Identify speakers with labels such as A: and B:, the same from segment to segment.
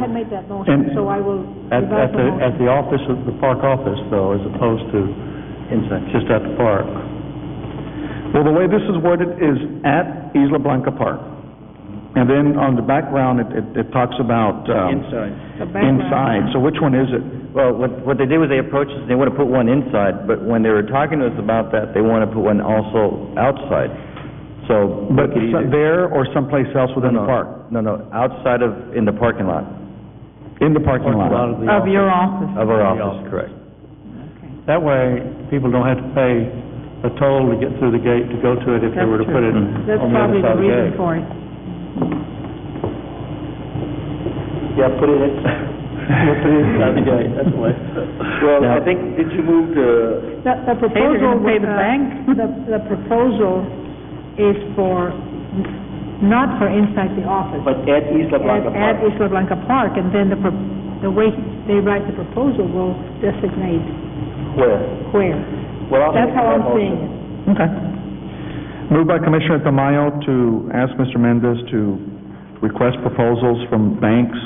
A: haven't made that motion,
B: And-
A: so I will
B: At, at
A: revise
B: the,
A: the
B: at
A: motion.
B: the office, of the park office though, as opposed to just at the park.
C: Well, the way this is worded is at Isla Blanca Park. And then on the background, it, it- it talks about, um...
A: The background.
C: Inside, so which one is it?
D: Well, what, what they did was they approached us, they want to put one inside, but when they were talking to us about that, they want to put one also outside. So, we
C: But
D: could
C: so-
D: either...
C: there or someplace else within the
D: No,
C: park?
D: No, no, outside of, in the parking lot
C: In the parking
B: Parking lot
C: lot?
B: the office.
E: your office.
D: of our
B: The
D: office, correct.
B: That way, people don't have to pay a toll to get through the gate to go to it if they were to put it on the
E: That's
B: other
E: probably
B: side
E: the
B: of the
E: reason
B: gate.
E: for it.
F: Yeah, put it inside. Put it inside the gate, that's why. Well, I think, did you move to,
A: The the
E: they're
A: proposal...
E: gonna pay the
A: uh,
E: bank.
A: The the proposal is for, n- not for inside the office.
F: but at Isla Blanca
A: At
F: Park?
A: Isla Blanca Park, and then the, pro- the way they write the proposal will designate
F: Where?
A: where.
F: Well, I'll
A: That's
F: make
A: how
F: that
A: I'm
F: motion.
A: seeing it.
C: Okay. Moved by Commissioner Tamayo to ask Mr. Mendez to request proposals from banks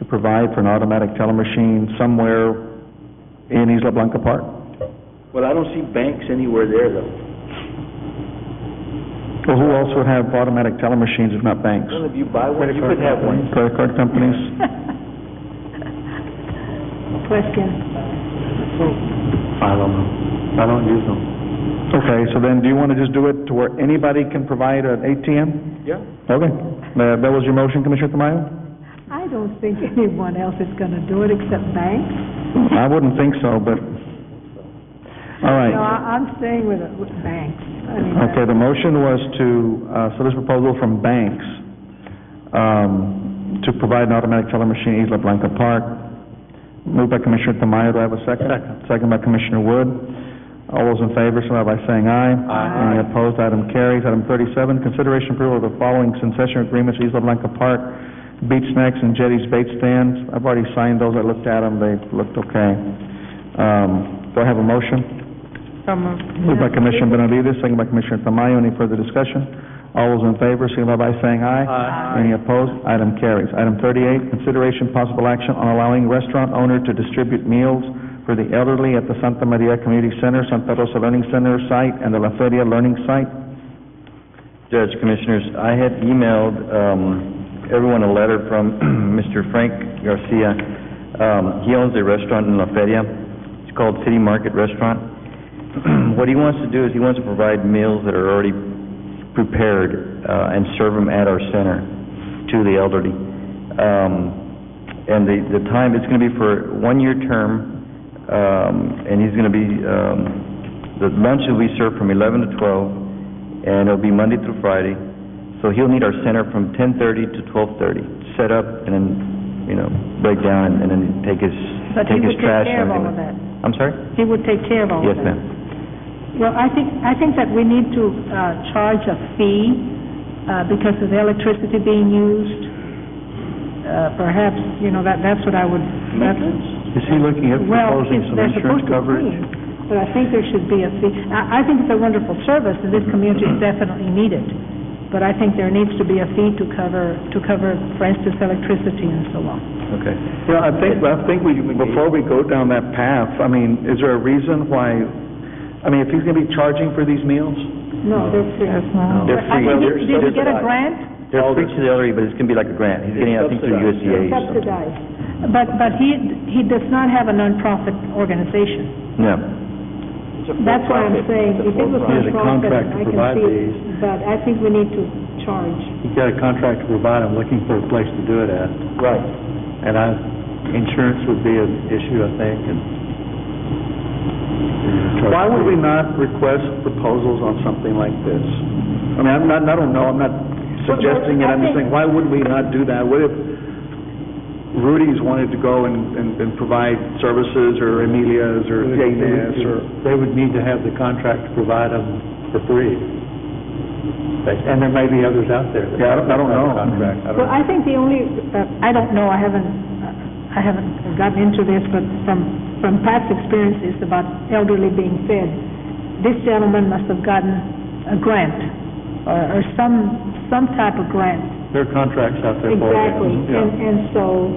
C: to provide for an automatic teller machine somewhere in Isla Blanca Park?
F: Well, I don't see banks anywhere there, though.
C: Well, who else would have automatic teller machines if not banks?
F: None of you buy one, you could have one.
C: Credit card companies?
A: Question.
B: I don't know. I don't use them.
C: Okay, so then, do you want to just do it to where anybody can provide an ATM?
F: Yeah.
C: Okay, Uh, that was your motion, Commissioner Tamayo?
A: I don't think anyone else is gonna do it except banks.
C: I wouldn't think so, but,
A: No,
C: all right.
A: I- I'm staying with, it, with banks. I mean,
C: Okay, the motion was to, uh, so this proposal from banks, um, to provide an automatic teller machine in Isla Blanca Park, moved by Commissioner Tamayo, do I have a second? Second. by Commissioner Wood. All those in favor, signify by saying aye. Aye. Any opposed, item carries. Item thirty-seven, consideration approval of the following concession agreements, Isla Blanca Park, Beach Snacks and Jetty's Bait Stands. I've already signed those, I looked at them, they looked okay. Um, do I have a motion? Moved by Commissioner Benavides, second by Commissioner Tamayo. Any further discussion? All those in favor, signify by saying aye. Aye. Any opposed? Item carries. Item thirty-eight, consideration possible action on allowing restaurant owner to distribute meals for the elderly at the Santa Maria Community Center, Santa Rosa Learning Center site, and the La Feria Learning Site.
D: Judge, Commissioners, I had emailed um, everyone a letter from Mr. Frank Garcia. Um, He owns a restaurant in La Feria. It's called City Market Restaurant. What he wants to do is he wants to provide meals that are already prepared uh, and serve them at our center to the elderly. Um, And the the time, it's going to be for a one-year term, um, and he's going to be, um, the lunch will be served from 11 to 12, and it'll be Monday through Friday. So he'll need our center from 10:30 to 12:30, set up and then, you know, break down and then take his,
A: But he would
D: take his
A: take
D: trash
A: care of
D: and everything.
A: all of that.
D: I'm sorry?
A: He would take care of all
D: Yes,
A: of that.
D: ma'am.
A: Well, I think, I think that we need to uh, charge a fee uh, because of the electricity being used. Uh, Perhaps, you know, that, that's what I would, that's...
B: Is he looking at
A: Well,
B: proposing
A: it's-
B: some
A: they're
B: insurance
A: supposed to
B: coverage?
A: pay, But I think there should be a fee. I, I think it's a wonderful service, and this community is definitely needed. But I think there needs to be a fee to cover, to cover, for instance, electricity and so on.
D: Okay.
C: Yeah, I think, I think we, before we go down that path, I mean, is there a reason why, I mean, if he's going to be charging for these meals?
A: No, they're free.
D: They're
A: I
D: free.
A: think,
D: They're
A: it- did you get a
D: subsidized.
A: grant?
D: They're free to the elderly, but it's gonna be like a grant. He's getting, I think, through
F: Subsidized, yeah.
D: USDA or something.
A: Subsidized. But, but he, he does not have a nonprofit organization.
D: No.
F: It's a
A: That's why I'm
F: for-profit.
A: saying,
F: It's a
A: if it was
B: He has
F: for-profit.
B: a
A: nonprofit,
B: contract to
A: I can
B: provide
A: see it.
B: these.
A: But I think we need to charge.
B: He got a contract to provide, I'm looking for a place to do it at.
F: Right.
B: And I, insurance would be an issue, I think, and...
C: Why would we not request proposals on something like this? I mean, I'm not, I don't know, I'm not suggesting it, I'm just saying, why would we not do that? What if Rudy's wanted to go and, and and provide services, or Amelia's, or Dana's, or...
B: They would need to have the contract to provide them for free. And there may be others out there. that
C: Yeah, I don't- I don't
B: have the
C: know.
B: Contract, I don't
A: Well,
B: know.
A: I think the only, uh, I don't know, I haven't, uh, I haven't gotten into this, but from, from past experiences about elderly being fed, this gentleman must have gotten a grant, or, or some, some type of grant.
B: There are contracts out there for you.
A: Exactly, and, and so,